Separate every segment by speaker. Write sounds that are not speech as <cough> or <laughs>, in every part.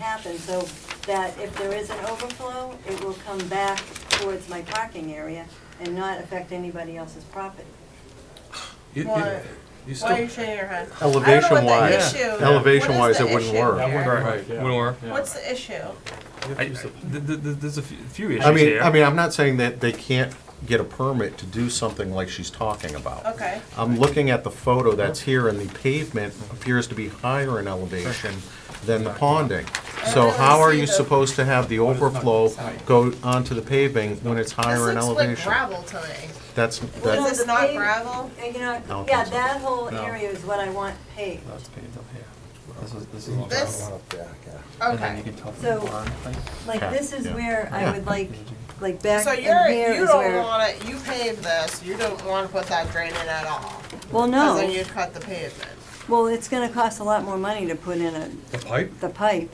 Speaker 1: happen, so that if there is an overflow, it will come back towards my parking area and not affect anybody else's property.
Speaker 2: You- you-
Speaker 3: Why-
Speaker 2: You
Speaker 3: Why are you
Speaker 2: still,
Speaker 3: shaking your head?
Speaker 4: Elevation
Speaker 3: wise,
Speaker 4: wise, elevation wise, it wouldn't
Speaker 5: That
Speaker 4: work.
Speaker 5: wouldn't
Speaker 2: Right.
Speaker 5: work, yeah.
Speaker 6: Wouldn't work.
Speaker 5: Yeah.
Speaker 3: What's the issue?
Speaker 6: I, I, th- th- th- there's a few, few issues
Speaker 4: I mean,
Speaker 6: here.
Speaker 4: I mean, I'm not saying that they can't get a permit to do something like she's talking about.
Speaker 3: Okay.
Speaker 4: I'm looking at the photo that's here, and the pavement appears to be higher in elevation than the ponding. So how are you supposed to have the overflow go onto the paving when it's higher in
Speaker 3: This looks like
Speaker 4: elevation?
Speaker 3: gravel to me.
Speaker 4: That's,
Speaker 1: Well,
Speaker 4: that,
Speaker 3: Is
Speaker 1: the
Speaker 3: this not
Speaker 1: pave-
Speaker 3: gravel?
Speaker 1: Uh, You know,
Speaker 4: don't
Speaker 1: yeah,
Speaker 4: think so.
Speaker 1: that whole
Speaker 2: No.
Speaker 1: area is what I want paved.
Speaker 2: that's paved up here. This is, this is all.
Speaker 3: This-
Speaker 2: gravel. And then you
Speaker 3: Okay.
Speaker 2: can tell from
Speaker 1: So-
Speaker 2: the barn, like,
Speaker 1: Like,
Speaker 4: Okay,
Speaker 1: this is
Speaker 4: yeah.
Speaker 1: where I
Speaker 4: Yeah.
Speaker 1: would like, like back
Speaker 3: So
Speaker 1: in
Speaker 3: you're,
Speaker 1: here
Speaker 3: you
Speaker 1: is
Speaker 3: don't
Speaker 1: where,
Speaker 3: wanna, you paved this, you don't wanna put that drain in at all.
Speaker 1: well,
Speaker 3: Cause then
Speaker 1: no,
Speaker 3: you cut the pavement.
Speaker 1: well, it's gonna cost a lot more money to put in a,
Speaker 2: The pipe?
Speaker 1: the pipe.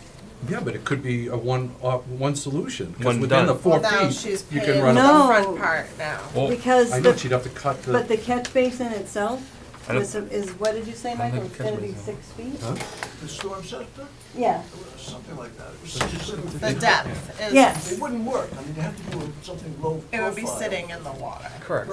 Speaker 2: Yeah, but it could be a one, uh, one solution, because
Speaker 6: One
Speaker 2: within the
Speaker 6: done.
Speaker 2: four
Speaker 3: Well, now
Speaker 2: feet,
Speaker 3: she's
Speaker 2: you
Speaker 3: paved
Speaker 2: can run
Speaker 3: the
Speaker 2: a.
Speaker 1: No.
Speaker 3: front part now.
Speaker 6: Well,
Speaker 1: Because
Speaker 2: I know
Speaker 1: the,
Speaker 2: she'd have to cut the.
Speaker 1: but the catch basin itself
Speaker 6: I don't-
Speaker 1: is, is, what did you say,
Speaker 2: don't
Speaker 1: Michael,
Speaker 2: think
Speaker 1: it's
Speaker 2: catch
Speaker 1: gonna be
Speaker 2: basin.
Speaker 1: six feet?
Speaker 2: Huh?
Speaker 7: The storm scepter,
Speaker 1: Yeah,
Speaker 7: something like that. It was specific.
Speaker 3: The depth is.
Speaker 1: yes,
Speaker 7: It wouldn't work. I mean, they have to do something low profile.
Speaker 3: It would be sitting in the water.
Speaker 2: Correct.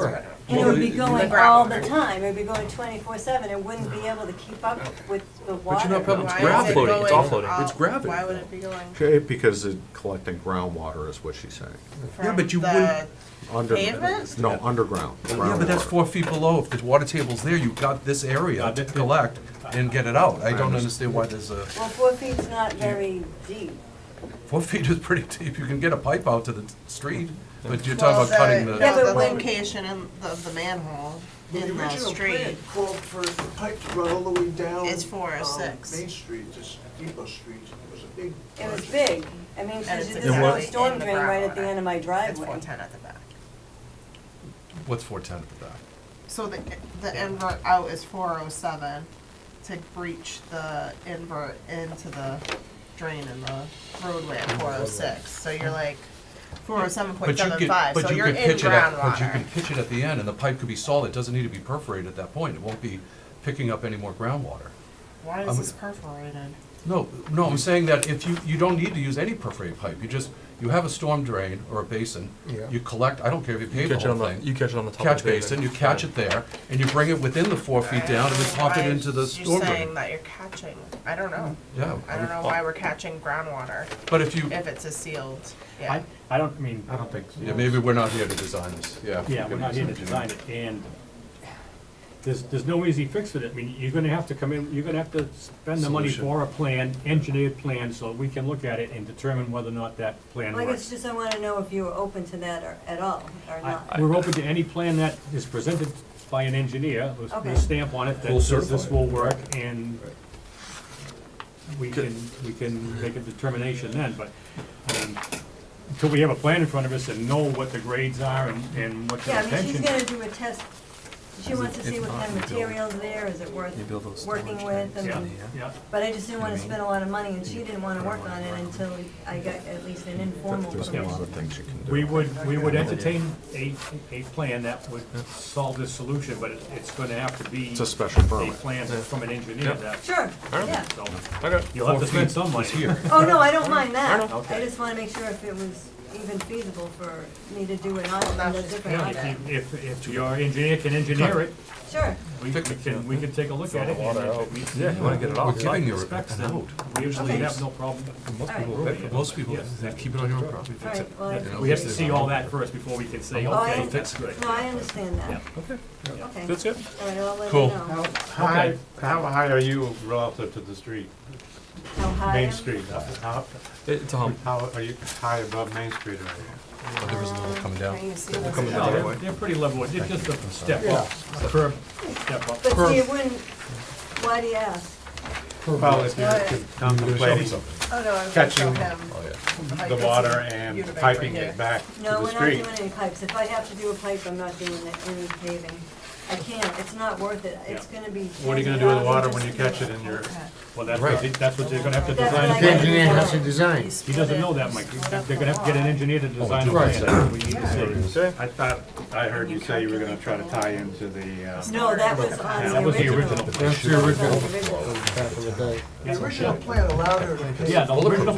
Speaker 1: and it would be going
Speaker 3: gravel
Speaker 1: all the
Speaker 3: area.
Speaker 1: time, it'd be going twenty-four seven, it wouldn't be able to keep up with the
Speaker 2: But you're not
Speaker 1: water.
Speaker 2: probably, it's
Speaker 3: Why
Speaker 6: gravel
Speaker 3: is it
Speaker 2: gravity.
Speaker 6: floating, it's all
Speaker 3: going
Speaker 6: floating.
Speaker 3: out?
Speaker 2: It's gravity.
Speaker 3: Why would it be going
Speaker 4: okay, because it's collecting groundwater is what she's saying.
Speaker 2: Yeah,
Speaker 3: from
Speaker 2: but you
Speaker 3: the,
Speaker 2: wouldn't-
Speaker 4: Under,
Speaker 3: Pavement?
Speaker 4: no, underground,
Speaker 2: Yeah, but that's
Speaker 4: groundwater.
Speaker 2: four feet below, if the water table's there, you've got this area to collect and get it out. I don't understand why there's a,
Speaker 1: Well, four feet's not very deep.
Speaker 2: four <laughs> feet is pretty deep, you can get a pipe out to the t- street, but you're
Speaker 3: well,
Speaker 2: talking about cutting
Speaker 3: the,
Speaker 2: the,
Speaker 1: Yeah,
Speaker 3: no,
Speaker 1: but
Speaker 3: the
Speaker 1: when-
Speaker 3: location in, of the manhole
Speaker 7: The
Speaker 3: in the
Speaker 7: original
Speaker 3: street.
Speaker 7: plan called for the pipe to run all the way down.
Speaker 3: It's four or
Speaker 7: um,
Speaker 3: six.
Speaker 7: Main Street, to S- Depot Street. It was a big.
Speaker 1: It was
Speaker 7: project.
Speaker 1: big. I mean,
Speaker 3: And
Speaker 1: there's
Speaker 3: it's
Speaker 1: there's no
Speaker 3: exactly
Speaker 1: storm
Speaker 3: in the
Speaker 1: drain right at the
Speaker 3: ground.
Speaker 1: end of my
Speaker 3: It's
Speaker 1: driveway.
Speaker 3: four ten at the back.
Speaker 2: what's four ten at the back?
Speaker 3: So the, the invert out is four oh seven to breach the invert into the drain in the roadway at four oh six. So you're like four oh seven point
Speaker 2: But you
Speaker 3: seven
Speaker 2: could,
Speaker 3: five, so
Speaker 2: but you
Speaker 3: you're
Speaker 2: could
Speaker 3: in
Speaker 2: pitch it at, but you
Speaker 3: groundwater.
Speaker 2: can pitch it at the end, and the pipe could be solid, it doesn't need to be perforated at that point, it won't be picking up any more groundwater.
Speaker 3: Why
Speaker 2: I'm-
Speaker 3: is this perforated?
Speaker 2: No, no, I'm saying that if you, you don't need to use any perforated pipe, you just, you have a storm drain or a basin, you collect, I don't care if you
Speaker 6: you
Speaker 2: pave the
Speaker 6: catch it on
Speaker 2: whole
Speaker 6: the,
Speaker 2: thing.
Speaker 6: you catch it on the top
Speaker 2: catch
Speaker 6: of the pavement.
Speaker 2: basin, you catch it there, and you bring it within the four feet down, and then pump it
Speaker 3: Why
Speaker 2: into the
Speaker 3: is-
Speaker 2: storm
Speaker 3: You're saying
Speaker 2: drain.
Speaker 3: that you're catching, I don't know.
Speaker 2: Yeah.
Speaker 3: I don't know why we're catching groundwater
Speaker 2: But if you,
Speaker 3: if it's a sealed, yeah.
Speaker 5: I, I don't, I mean,
Speaker 2: yeah, maybe we're not here to design this, yeah.
Speaker 5: yeah, we're not here to design it, and there's, there's no easy fix for it. I mean, you're gonna have to come in, you're gonna have to spend the money
Speaker 2: Solution.
Speaker 5: for a plan, engineered plan, so we can look at it and determine whether or not that plan
Speaker 1: Well, I guess
Speaker 5: works.
Speaker 1: just I want to know if you were open to that or, at all, or
Speaker 5: I-
Speaker 1: not.
Speaker 5: We're open to any plan that is presented by an engineer, with
Speaker 1: Okay.
Speaker 5: a stamp on it
Speaker 2: We'll
Speaker 5: that says this
Speaker 2: certify it.
Speaker 5: will work, and we can, we can make a determination then, but, um, until we have a plan in front of us and know what the grades are and, and what the
Speaker 1: Yeah, I mean,
Speaker 5: intention
Speaker 1: she's gonna do a test, she wants to
Speaker 2: if
Speaker 1: see what
Speaker 2: not,
Speaker 1: kind of
Speaker 2: you build-
Speaker 1: materials there, is it worth
Speaker 2: you build those
Speaker 1: working
Speaker 2: storage
Speaker 1: with,
Speaker 2: tanks.
Speaker 5: Yeah,
Speaker 1: and,
Speaker 5: yeah.
Speaker 1: but I just didn't want
Speaker 2: I
Speaker 1: to
Speaker 2: mean,
Speaker 1: spend a lot of money, and she
Speaker 2: you
Speaker 1: didn't want to
Speaker 2: put it
Speaker 1: work
Speaker 2: on
Speaker 1: on
Speaker 2: the
Speaker 1: it
Speaker 2: ground.
Speaker 1: until I got at least an informal
Speaker 4: There's a lot
Speaker 1: permission.
Speaker 4: of things you can do.
Speaker 5: We would, we would entertain a, a plan that would solve this solution, but it- it's gonna have to be
Speaker 4: It's a special
Speaker 5: a
Speaker 4: permit.
Speaker 5: plan from an engineer that,
Speaker 1: Sure, yeah.
Speaker 5: so,
Speaker 6: Okay.
Speaker 5: you'll have
Speaker 2: Four
Speaker 5: to spend
Speaker 2: feet
Speaker 5: some money.
Speaker 2: is here.
Speaker 1: Oh, no, I don't mind that.
Speaker 5: Okay.
Speaker 1: I just want to make sure if it was even feasible for me to do an audit,
Speaker 3: Well,
Speaker 1: a
Speaker 3: that's just
Speaker 1: different
Speaker 5: Yeah,
Speaker 1: audit.
Speaker 5: if you- if, if your engineer can engineer it,
Speaker 1: Sure,
Speaker 5: we we can, we can take a look at it. and if it meets
Speaker 6: Yeah, you wanna get it
Speaker 2: We're
Speaker 6: off.
Speaker 2: giving you an
Speaker 5: Specs, then
Speaker 2: out.
Speaker 5: we usually
Speaker 1: Okay.
Speaker 5: have no problem.
Speaker 2: Most
Speaker 1: people
Speaker 2: people,
Speaker 5: Alright.
Speaker 2: most people,
Speaker 5: Yes.
Speaker 2: they keep it on your own property,
Speaker 1: all
Speaker 2: fix it.
Speaker 1: right, well, I-
Speaker 2: You know,
Speaker 5: We have to see all that first before we can say,
Speaker 1: Oh, I
Speaker 5: okay,
Speaker 1: under-
Speaker 5: that's good.
Speaker 1: no, I understand that. Okay. Okay.
Speaker 6: That's it?
Speaker 1: All right, I'll let you
Speaker 2: Cool.
Speaker 1: know.
Speaker 8: How, how high are you relative to the street,
Speaker 1: How high?
Speaker 8: Main
Speaker 1: am-
Speaker 8: Street? How,
Speaker 6: It's a hump.
Speaker 8: how are you high above Main Street are you?
Speaker 2: but There is no one coming down.
Speaker 3: Can you see this?
Speaker 2: Coming
Speaker 5: Yeah,
Speaker 2: down.
Speaker 5: They're they're pretty level, it's just a step up, a curb, step up.
Speaker 1: But see, it wouldn't, why do you ask?
Speaker 8: Well, if
Speaker 3: Right.
Speaker 8: you're contemplating
Speaker 3: Oh, no, I'm gonna
Speaker 8: Catching
Speaker 3: show him.
Speaker 2: Oh, yeah.
Speaker 3: like,
Speaker 8: the
Speaker 3: this
Speaker 8: water
Speaker 3: is a
Speaker 8: and
Speaker 3: unit right
Speaker 8: piping
Speaker 3: here.
Speaker 8: it back to
Speaker 1: No,
Speaker 8: the
Speaker 1: we're not
Speaker 8: street.
Speaker 1: doing any pipes. If I have to do a pipe, I'm not doing it- any paving. I can't, it's not worth it. It's
Speaker 5: Yeah.
Speaker 1: gonna be.
Speaker 8: What are you gonna do with the water when you
Speaker 1: $10,000
Speaker 8: catch it in your,
Speaker 5: Well, that's what, they- that's what they're gonna have to
Speaker 1: That's
Speaker 5: design.
Speaker 1: what I
Speaker 5: a plan.
Speaker 1: gotta do.
Speaker 3: You
Speaker 5: He
Speaker 3: split
Speaker 5: doesn't
Speaker 3: it.
Speaker 5: know that, Mike, they're gonna have to get an engineer to design a
Speaker 2: Right.
Speaker 5: plan, we need to see.
Speaker 8: I thought, I heard you say you were gonna try to tie into the, um,
Speaker 1: No, that was on
Speaker 5: That was the original.
Speaker 1: That was the original.
Speaker 7: The original plan allowed her to pay
Speaker 5: Yeah, the original